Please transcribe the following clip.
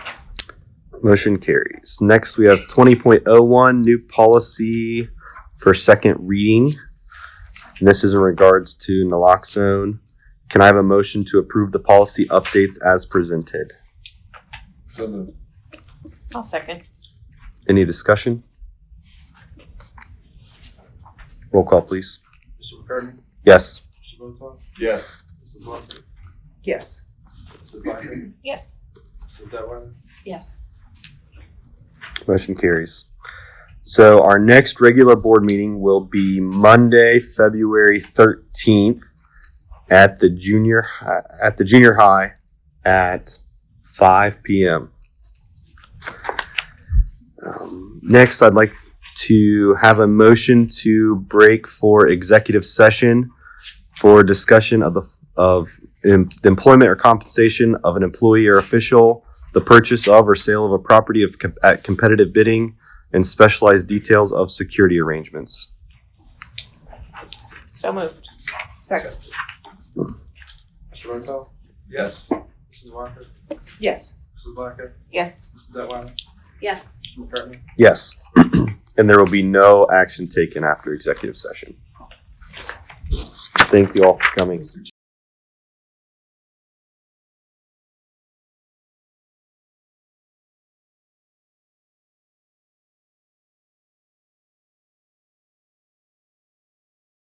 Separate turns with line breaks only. Motion carries. Next, we have 20.01, new policy for second reading. And this is in regards to naloxone. Can I have a motion to approve the policy updates as presented?
So moved.
I'll second.
Any discussion? Roll call, please.
Mr. McCartney?
Yes.
Mr. Votak?
Yes.
Mrs. Walker?
Yes.
Mrs. Blackman?
Yes.
Mrs. Detwiler?
Yes.
Motion carries. So our next regular board meeting will be Monday, February thirteenth at the junior, hi- at the junior high at five P M. Um, Next, I'd like to have a motion to break for executive session for discussion of the, f- of em- the employment or compensation of an employee or official the purchase of or sale of a property of com- at competitive bidding and specialized details of security arrangements.
So moved. Second.
Mr. Votak?
Yes.
Mrs. Walker?
Yes.
Mrs. Blackman?
Yes.
Mrs. Detwiler?
Yes.
Mr. McCartney?
Yes. and there will be no action taken after executive session. Thank you all for coming.
Mr.